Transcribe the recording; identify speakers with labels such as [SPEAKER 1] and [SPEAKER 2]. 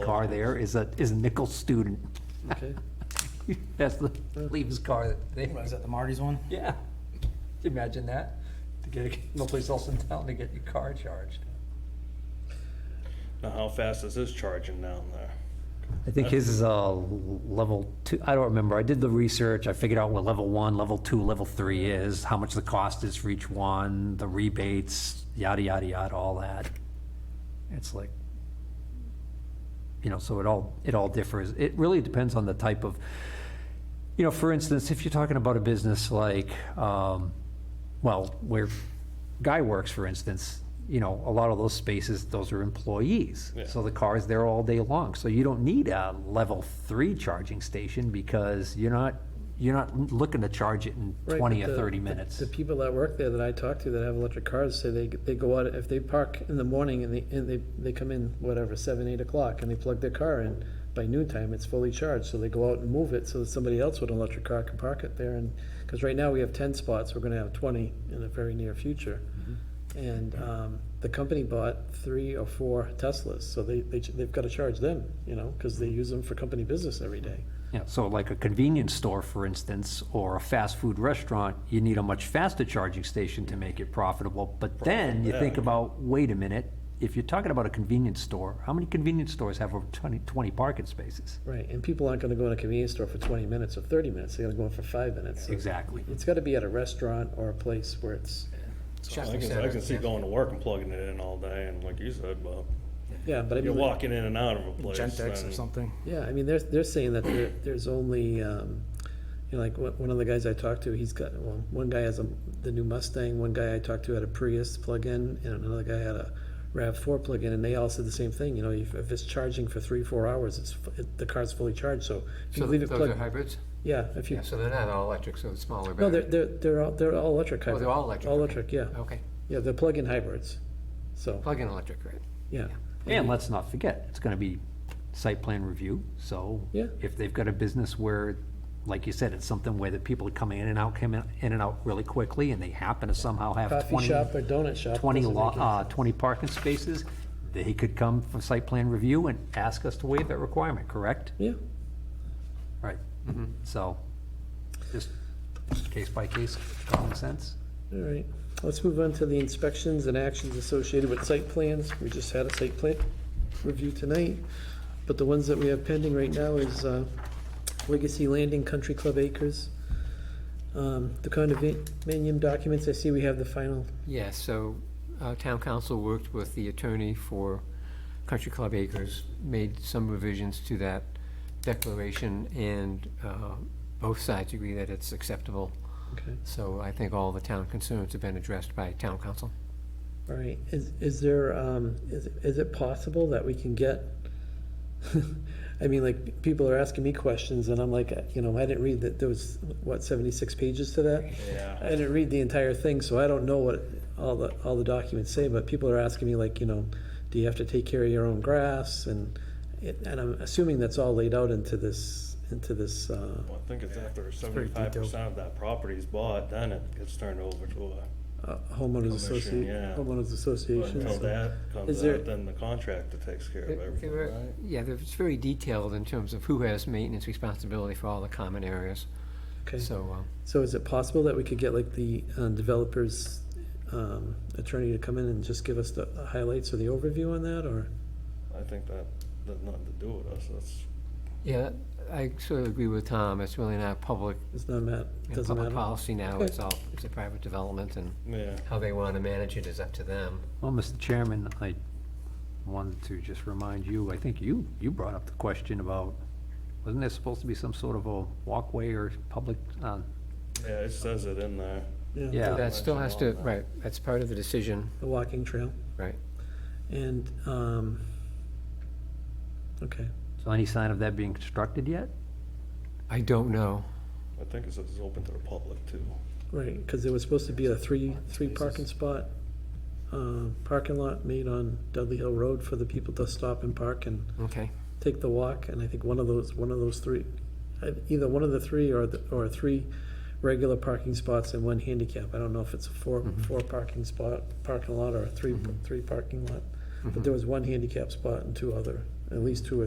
[SPEAKER 1] car there is a, is a nickel student.
[SPEAKER 2] Okay.
[SPEAKER 1] That's the, leave his car there.
[SPEAKER 3] Is that the Marty's one?
[SPEAKER 1] Yeah. Can you imagine that? To get, no place else in town to get your car charged.
[SPEAKER 2] Now, how fast is this charging down there?
[SPEAKER 1] I think his is a level two, I don't remember. I did the research. I figured out what level one, level two, level three is, how much the cost is for each one, the rebates, yada, yada, yada, all that. It's like, you know, so it all, it all differs. It really depends on the type of, you know, for instance, if you're talking about a business like, um, well, where Guy works, for instance, you know, a lot of those spaces, those are employees.
[SPEAKER 2] Yeah.
[SPEAKER 1] So the car is there all day long. So you don't need a level three charging station because you're not, you're not looking to charge it in
[SPEAKER 4] Right,
[SPEAKER 1] twenty
[SPEAKER 4] but
[SPEAKER 1] or
[SPEAKER 4] the-
[SPEAKER 1] thirty
[SPEAKER 4] the-
[SPEAKER 1] minutes.
[SPEAKER 4] The people that work there that I talk to that have electric cars say they, they go out, if they park in the morning and they, and they, they come in, whatever, seven, eight o'clock, and they plug their car in, by noon time, it's fully charged, so they go out and move it so that somebody else with an electric car can park it there, and, because right now we have ten spots, we're gonna have twenty in the very near future. And, um, the company bought three or four Teslas, so they, they, they've gotta charge them, you know, because they use them for company business every day.
[SPEAKER 1] Yeah, so like a convenience store, for instance, or a fast food restaurant, you need a much faster charging station to make it profitable. But then you think
[SPEAKER 2] yeah.
[SPEAKER 1] about, wait a minute, if you're talking about a convenience store, how many convenience stores have over 20 20 parking spaces?
[SPEAKER 4] Right, and people aren't gonna go in a convenience store for twenty minutes or thirty minutes, they're gonna go in for five minutes.
[SPEAKER 1] Exactly.
[SPEAKER 4] It's gotta be at a restaurant or a place where it's,
[SPEAKER 2] I can, I can see going to work and plugging it in all day, and like you said, Bob,
[SPEAKER 4] yeah, but I
[SPEAKER 2] you're
[SPEAKER 4] mean,
[SPEAKER 2] walking in and out of a place.
[SPEAKER 3] Gentex or
[SPEAKER 2] and-
[SPEAKER 3] something?
[SPEAKER 4] yeah, I mean, they're, they're saying that there, there's only, um, you know, like, one one of the guys I talked to, he's got, well, one guy has a, the new Mustang, one guy I talked to had a Prius plug-in, and another guy had a RAV four plug-in, and they all said the same thing, you know, if, if it's charging for three, four hours, it's, fu- it- the car's fully charged, so if you
[SPEAKER 5] So
[SPEAKER 4] leave it
[SPEAKER 5] th- those are
[SPEAKER 4] plugged,
[SPEAKER 5] hybrids?
[SPEAKER 4] yeah, if you,
[SPEAKER 5] Yeah, so they're not all electric, so it's smaller
[SPEAKER 4] no, they're,
[SPEAKER 5] battery.
[SPEAKER 4] they're, they're all, they're all electric
[SPEAKER 5] Oh,
[SPEAKER 4] hybrids.
[SPEAKER 5] they're all electric?
[SPEAKER 4] All
[SPEAKER 5] okay.
[SPEAKER 4] electric, yeah.
[SPEAKER 5] Okay,
[SPEAKER 4] Yeah, they're plug-in hybrids, so,
[SPEAKER 5] plug-in electric, right?
[SPEAKER 4] yeah.
[SPEAKER 1] And let's not forget, it's gonna be site plan review, so.
[SPEAKER 4] Yeah.
[SPEAKER 1] If they've got a business where, like you said, it's something where the people come in and out, come in in and out really quickly, and they happen to somehow have
[SPEAKER 4] Coffee
[SPEAKER 1] twenty.
[SPEAKER 4] shop or donut shop.
[SPEAKER 1] 20,
[SPEAKER 4] doesn't
[SPEAKER 1] lo-
[SPEAKER 4] make
[SPEAKER 1] uh,
[SPEAKER 4] any-
[SPEAKER 1] 20 parking spaces, they could come for site plan review and ask us to waive that requirement, correct?
[SPEAKER 4] Yeah,
[SPEAKER 1] Right. So, just case by case, common sense.
[SPEAKER 4] all right. Let's move on to the inspections and actions associated with site plans. We just had a site plan review tonight, but the ones that we have pending right now is uh, Legacy Landing Country Club Acres. Um, The condominium documents, I see we have the final,
[SPEAKER 5] Yeah, so uh, town council worked with the attorney for Country Club Acres, made some revisions to that declaration, and uh, both sides agree that it's acceptable.
[SPEAKER 4] okay,
[SPEAKER 5] So I think all the town concerns have been addressed by town council.
[SPEAKER 4] all right. Is, is there, um, is, is it possible that we can get I mean, like, people are asking me questions, and I'm like, uh, you know, I didn't read that, there was, what, 76 pages to that?
[SPEAKER 2] Yeah.
[SPEAKER 4] I didn't read the entire thing, so I don't know what all the, all the documents say, but people are asking me like, you know, do you have to take care of your own grass? And, it- and I'm assuming that's all laid out into this, into this, uh,
[SPEAKER 2] Well, I think it's after seventy-five percent of that property is bought, then it gets turned over to a,
[SPEAKER 4] uh, homeowners
[SPEAKER 2] Commission,
[SPEAKER 4] association,
[SPEAKER 2] yeah.
[SPEAKER 4] homeowners
[SPEAKER 2] but
[SPEAKER 4] association.
[SPEAKER 2] until
[SPEAKER 4] so-
[SPEAKER 2] that
[SPEAKER 4] Is
[SPEAKER 2] comes
[SPEAKER 4] there-
[SPEAKER 2] out, then the contractor takes care of
[SPEAKER 5] There-
[SPEAKER 2] everything,
[SPEAKER 5] there are-
[SPEAKER 2] right?
[SPEAKER 5] Yeah, there- it's very detailed in terms of who has maintenance responsibility for all the common areas,
[SPEAKER 4] Okay,
[SPEAKER 5] so. um,
[SPEAKER 4] so is it possible that we could get like the uh, developer's um, attorney to come in and just give us the highlights or the overview on that, or?
[SPEAKER 2] I think that, that's nothing to do with us, that's,
[SPEAKER 5] Yeah, I sort of agree with Tom, it's really not public,
[SPEAKER 4] It's not ma-
[SPEAKER 5] you know,
[SPEAKER 4] doesn't
[SPEAKER 5] public
[SPEAKER 4] matter.
[SPEAKER 5] policy now,
[SPEAKER 4] Okay.
[SPEAKER 5] it's all, it's a private development, and
[SPEAKER 2] yeah.
[SPEAKER 5] how they want to manage it is up to them.
[SPEAKER 1] Well, Mr. Chairman, I wanted to just remind you, I think you, you brought up the question about, wasn't there supposed to be some sort of a walkway or public, uh,
[SPEAKER 2] Yeah, it says it in there.
[SPEAKER 1] Yeah.
[SPEAKER 5] That still has to,
[SPEAKER 2] Mention all that.
[SPEAKER 5] right, that's part of the decision,
[SPEAKER 4] The walking trail,
[SPEAKER 5] right?
[SPEAKER 4] and, um, okay,
[SPEAKER 1] so any sign of that being constructed yet?
[SPEAKER 5] I don't know.
[SPEAKER 2] I think it says it's open to the public too.
[SPEAKER 4] right, because there was supposed to be a three, three parking spot, uh, parking lot made on Dudley Hill Road for the people to stop and park and
[SPEAKER 5] Okay,
[SPEAKER 4] take the walk, and I think one of those, one of those three, uh, either one of the three or, the or three regular parking spots and one handicap, I don't know if it's a four, four parking spot, parking lot, or a three, three parking lot, but there was one handicap spot and two other, at least two or